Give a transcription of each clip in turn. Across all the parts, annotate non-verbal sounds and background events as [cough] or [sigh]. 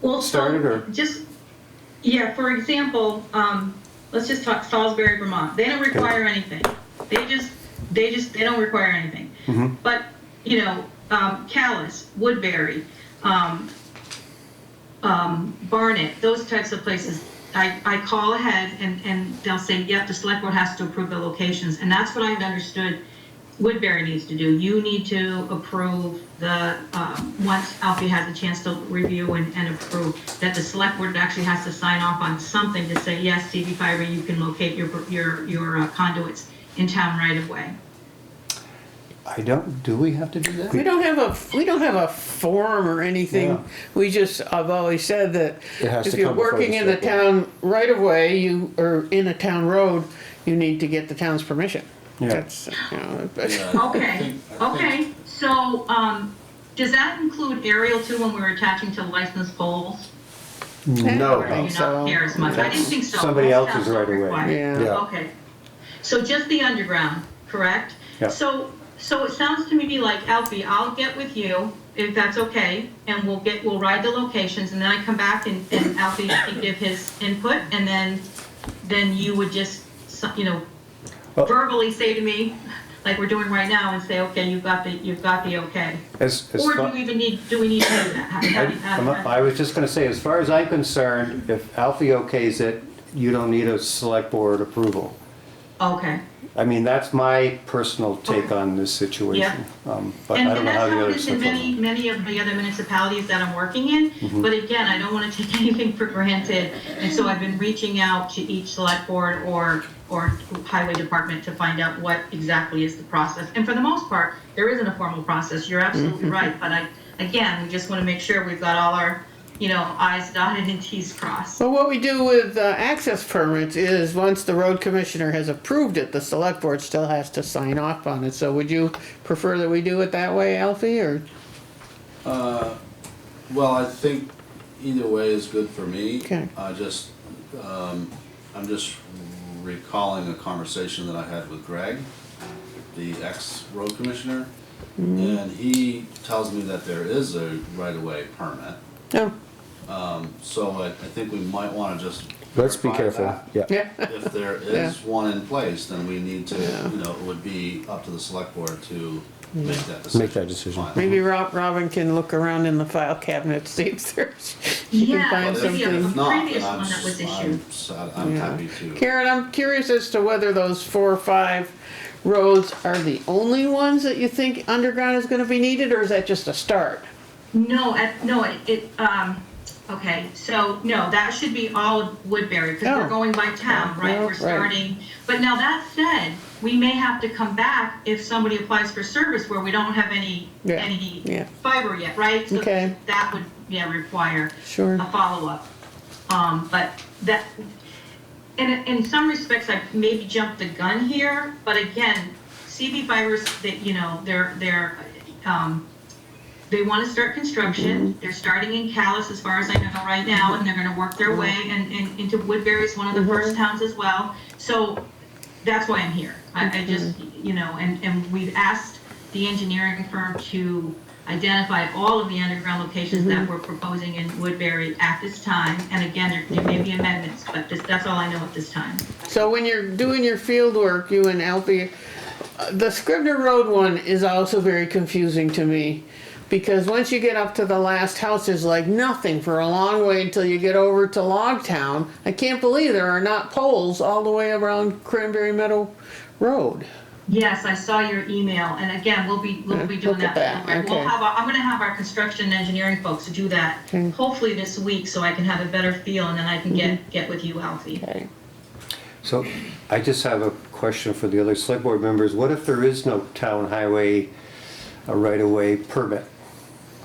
Well, so started, or- Just, yeah, for example, um, let's just talk Salisbury, Vermont. They don't require anything. They just, they just, they don't require anything. Mm-hmm. But, you know, um, Callis, Woodbury, um, um, Barnet, those types of places, I, I call ahead and, and they'll say, yep, the select board has to approve the locations. And that's what I had understood Woodbury needs to do. You need to approve the, um, once Alfie has a chance to review and, and approve, that the select board actually has to sign off on something to say, yes, TV fiber, you can locate your, your, your uh, conduits in town right of way. I don't, do we have to do that? We don't have a, we don't have a form or Yeah. anything. We just, I've always said that It has if to you're come before the working in the select board. town right of way, you, or in a town road, you need to get the town's permission. Yeah. That's, you know, [laughs] but- Okay, okay, so, um, does that include aerial too when we're attaching to licensed poles? No, Or do no. you so- not care as much? I didn't think so. Somebody That's else's not right away. required. Yeah. Yeah. Okay, so just the underground, correct? Yeah. So, so it sounds to me like, Alfie, I'll get with you, if that's okay, and we'll get, we'll ride the locations, and then I come back and, and Alfie can give his input, and then, then you would just, so- you know, Well- verbally say to me, like we're doing right now, and say, okay, you've got the, you've got the okay. As, as Or far- do we even need, do we need to do that? How- how- I I'm- how- I was just gonna say, as far as I'm concerned, if Alfie okays it, you don't need a select board approval. Okay. I mean, that's my personal take on this situation. Um, But And I and don't know how that's how the it other is in stuff. many, goes. many of the other municipalities that I'm working Mm-hmm. in. But again, I don't want to take [laughs] anything for granted. And so I've been reaching out to each select board or, or highway department to find out what exactly is the process. And for the most part, there isn't a formal process. You're Mm-hmm. absolutely right. But I, again, we just want to make sure we've got all our, you know, i's dotted and t's crossed. Well, what we do with uh, access permits is, once the road commissioner has approved it, the select board still has to sign off on it. So would you prefer that we do it that way, Alfie, or? Uh, Well, I think either way is good for me. Okay. I just, um, I'm just recalling a conversation that I had with Greg, the ex-road commissioner. Mm-hmm. And he tells me that there is a right-of-way permit, No, so I, I think we might wanna just. Let's be verify careful, that. yeah. yeah, [laughs] If there is one in place, then we need to, you know, it would be up to the select board to make that decision. Make that decision. finally. maybe Rob, Robin can look around in the file cabinet, see if there's, [laughs] she can Yeah, find well, yeah. something. If not, then Previous I'm, one that was s- issued. I'm, s- I'm Yeah. happy to. Karen, I'm curious as to whether those four or five roads are the only ones that you think underground is gonna be needed, or is that just a start? No, at, no, it- it, um, okay, so, no, that should be all Woodbury, because Oh. we're going by town, right? Oh, We're right. starting, but now that said, we may have to come back if somebody applies for service where we don't have any, Yeah, yeah. any fiber yet, right? So Okay. That would, yeah, require Sure. a follow-up. Um, but that, and in some respects, I maybe jumped the gun here, but again, CB fibers, that, you know, they're, they're, um, they want to start construction. They're starting in Callis, as far as I know right now, and they're going to work their way and, and into Woodbury is one of the first towns as well. So that's why I'm here. I, I just, Mm-hmm. you know, and, and we've asked the engineering firm to identify all of the underground locations that Mm-hmm. we're proposing in Woodbury at this time. And again, there- there may be amendments, but this, that's all I know at this time. So when you're doing your field work, you and Alfie, uh, the Scribner Road one is also very confusing to me. Because once you get up to the last house, there's like nothing for a long way until you get over to Logtown. I can't believe there are not poles all the way around Cranberry Meadow Road. Yes, I saw your email, and again, we'll be, we'll be doing Look at that. that, We'll okay. have, our- I'm gonna have our construction and engineering folks do that, Okay. Mm-hmm. hopefully this week, so I can have a better feel, and then I can get, get with you, Alfie. Okay. So I just have a question for the other select board members. What if there is no town highway uh, right-of-way permit?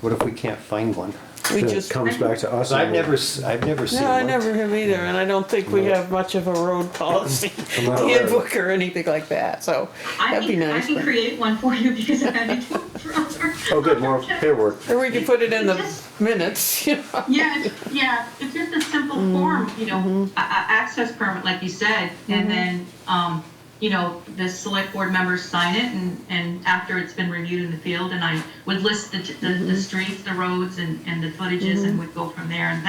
What if we can't find one? We Then just- it comes back to us. 'Cause I've and we- never, s- I've never seen No, I one. never have either, and I don't think we have much of a road policy [laughs] not aware of it. handbook or anything like that, so I that'd be can, I nice. can but- create one for you, because I've had it forever. Oh, good, [laughs] more paperwork. Or we could put it in the minutes, [laughs] you know. Yeah, it's- yeah, it's just a simple form, you know, a, a access permit, like you said, and then, um, you know, the select board members sign it, and, and after it's been reviewed in the field, and I would list the, the, the streets, the roads, and, and the footages, and would go from there, and that